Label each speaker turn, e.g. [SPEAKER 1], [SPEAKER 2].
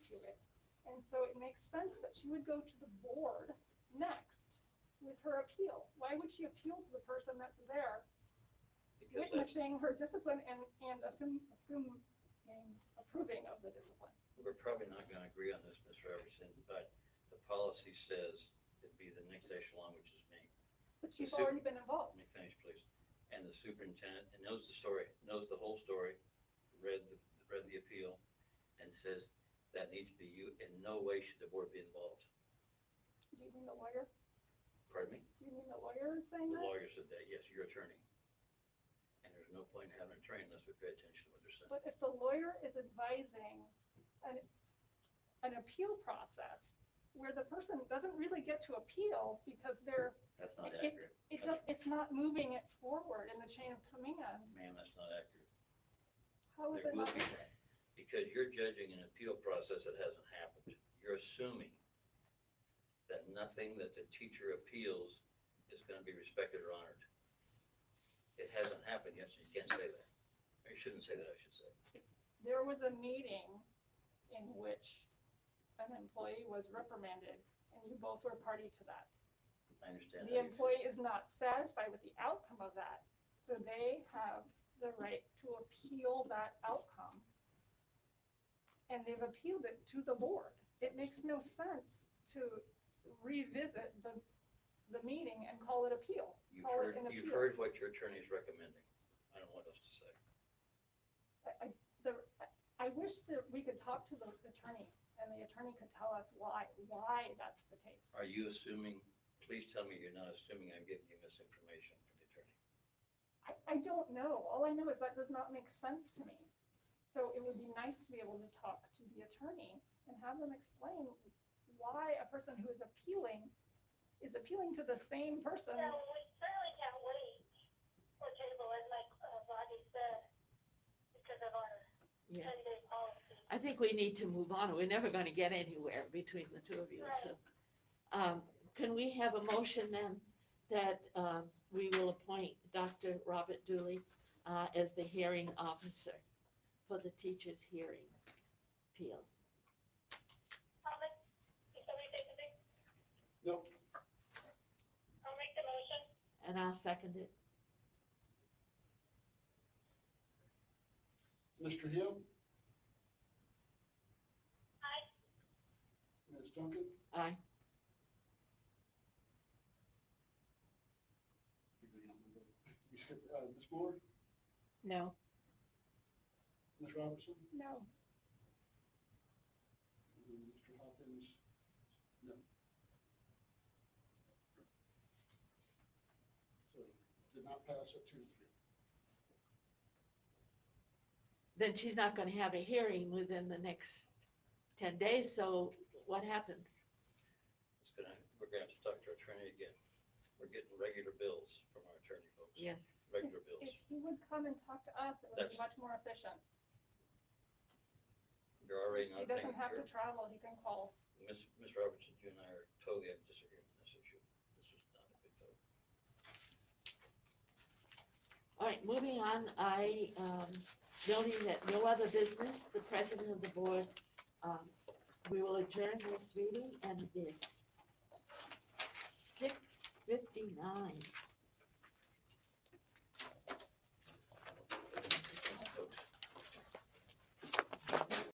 [SPEAKER 1] And so it makes sense that she would go to the board next with her appeal. Why would she appeal to the person that's there
[SPEAKER 2] Because that's
[SPEAKER 1] witnessing her discipline and, and assume, assume and approving of the discipline?
[SPEAKER 2] We're probably not going to agree on this, Ms. Robertson, but the policy says it'd be the next echelon, which is me.
[SPEAKER 1] But she's
[SPEAKER 2] The su-
[SPEAKER 1] already been
[SPEAKER 2] Let
[SPEAKER 1] involved.
[SPEAKER 2] me finish, please. And the superintendent, and knows the story, knows the whole story, read, the read the appeal, and says that needs to be you, in no way should the board be involved.
[SPEAKER 1] Do you mean the lawyer?
[SPEAKER 2] Pardon me?
[SPEAKER 1] Do you mean the lawyer is
[SPEAKER 2] The
[SPEAKER 1] saying that?
[SPEAKER 2] lawyer said that, yes, your attorney. And there's no point in having an attorney unless we pay attention to what they're saying.
[SPEAKER 1] But if the lawyer is advising an, an appeal process where the person doesn't really get to appeal because they're,
[SPEAKER 2] That's not
[SPEAKER 1] It-
[SPEAKER 2] accurate.
[SPEAKER 1] it does, it's not moving it forward in the chain of command,
[SPEAKER 2] Ma'am, that's not accurate.
[SPEAKER 1] how is
[SPEAKER 2] There
[SPEAKER 1] it
[SPEAKER 2] will
[SPEAKER 1] not?
[SPEAKER 2] be that, because you're judging an appeal process that hasn't happened. You're assuming that nothing that the teacher appeals is going to be respected or honored. It hasn't happened yet, so you can't say that. Or you shouldn't say that, I should say.
[SPEAKER 1] There was a meeting in which an employee was reprimanded, and you both were party to that.
[SPEAKER 2] I understand.
[SPEAKER 1] The
[SPEAKER 2] how you feel.
[SPEAKER 1] employee is not satisfied with the outcome of that, so they have the right to appeal that outcome. And they've appealed it to the board. It makes no sense to revisit the, the meeting and call it appeal.
[SPEAKER 2] You've
[SPEAKER 1] Call it
[SPEAKER 2] heard,
[SPEAKER 1] an
[SPEAKER 2] you've
[SPEAKER 1] appeal.
[SPEAKER 2] heard what your attorney is recommending. I don't know what else to say.
[SPEAKER 1] I- I- the- I- I wish that we could talk to the attorney and the attorney could tell us why, why that's the case.
[SPEAKER 2] Are you assuming, please tell me you're not assuming I'm giving you misinformation from the attorney.
[SPEAKER 1] I, I don't know. All I know is that does not make sense to me. So it would be nice to be able to talk to the attorney and have them explain why a person who is appealing is appealing to the same person.
[SPEAKER 3] So we certainly can't wait for table, as like uh, Rodney said, because of our
[SPEAKER 4] Yeah,
[SPEAKER 3] ten-day policy.
[SPEAKER 4] I think we need to move on. We're never going to get anywhere between the two of you, so. um, Can we have a motion then that um, we will appoint Dr. Robert Dooley uh, as the hearing officer for the teachers' hearing appeal?
[SPEAKER 3] I'll make, if somebody say something,
[SPEAKER 5] No,
[SPEAKER 3] I'll make the motion.
[SPEAKER 4] And I'll second it.
[SPEAKER 5] Mr. Hill,
[SPEAKER 3] Aye.
[SPEAKER 5] Ms. Duncan,
[SPEAKER 4] Aye.
[SPEAKER 5] you skipped, uh, Ms. Moore,
[SPEAKER 6] No,
[SPEAKER 5] Ms. Robertson,
[SPEAKER 1] No,
[SPEAKER 5] and Mr. Hopkins. No. So did not pass at two to three.
[SPEAKER 4] Then she's not going to have a hearing within the next 10 days, so what happens?
[SPEAKER 2] It's gonna, we're gonna have to talk to our attorney again. We're getting regular bills from our attorney folks.
[SPEAKER 4] Yes.
[SPEAKER 2] Regular bills.
[SPEAKER 1] if he would come and talk to us, it would be
[SPEAKER 2] That's-
[SPEAKER 1] much more efficient.
[SPEAKER 2] You're already
[SPEAKER 1] He
[SPEAKER 2] not paying.
[SPEAKER 1] doesn't have to travel, he can call.
[SPEAKER 2] you're- Ms. Ms. Robertson, you and I are totally at disagreement on this issue. This is not a big deal.
[SPEAKER 4] All right, moving on, I, um, noting that no other business, the president of the board, um, we will adjourn this meeting and it is six fifty-nine.